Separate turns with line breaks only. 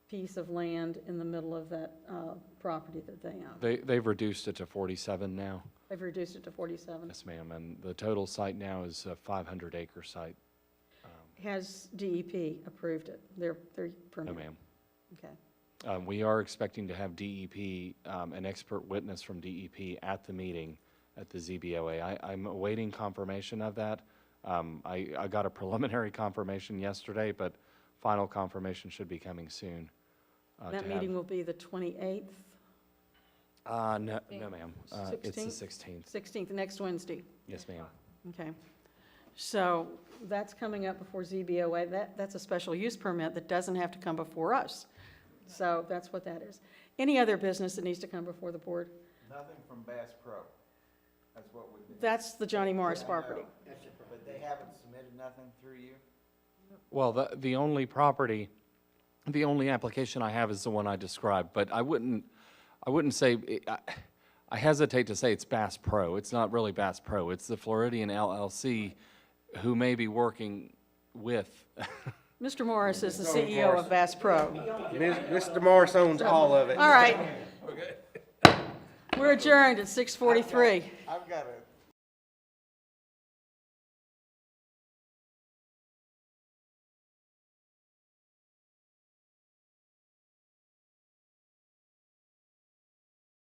piece of land in the middle of that uh, property that they own.
They, they've reduced it to 47 now.
They've reduced it to 47.
Yes, ma'am. And the total site now is a 500 acre site.
Has DEP approved it, their, their
No,
permit?
ma'am.
Okay.
Um, We are expecting to have DEP, um, an expert witness from DEP at the meeting at the ZBOA. I, I'm awaiting confirmation of that. Um, I, I got a preliminary confirmation yesterday, but final confirmation should be coming soon.
That
uh, to have-
meeting will be the 28th,
Uh, no, no, ma'am. Uh, It's the
16th?
16th.
16th, next Wednesday.
Yes, ma'am.
Okay. So that's coming up before ZBOA. That, that's a special use permit that doesn't have to come before us. So that's what that is. Any other business that needs to come before the board?
Nothing from Bass Pro. That's what we've been.
That's the Johnny Morris
Yeah, I
property.
know. But they haven't submitted nothing through you?
Well, the, the only property, the only application I have is the one I described, but I wouldn't, I wouldn't say, it- I- I hesitate to say it's Bass Pro. It's not really Bass Pro. It's the Floridian LLC who may be working with,
Mr. Morris is the CEO of Bass Pro.
Mr. Morris owns all of it.
All right. We're adjourned at 6:43.
I've got a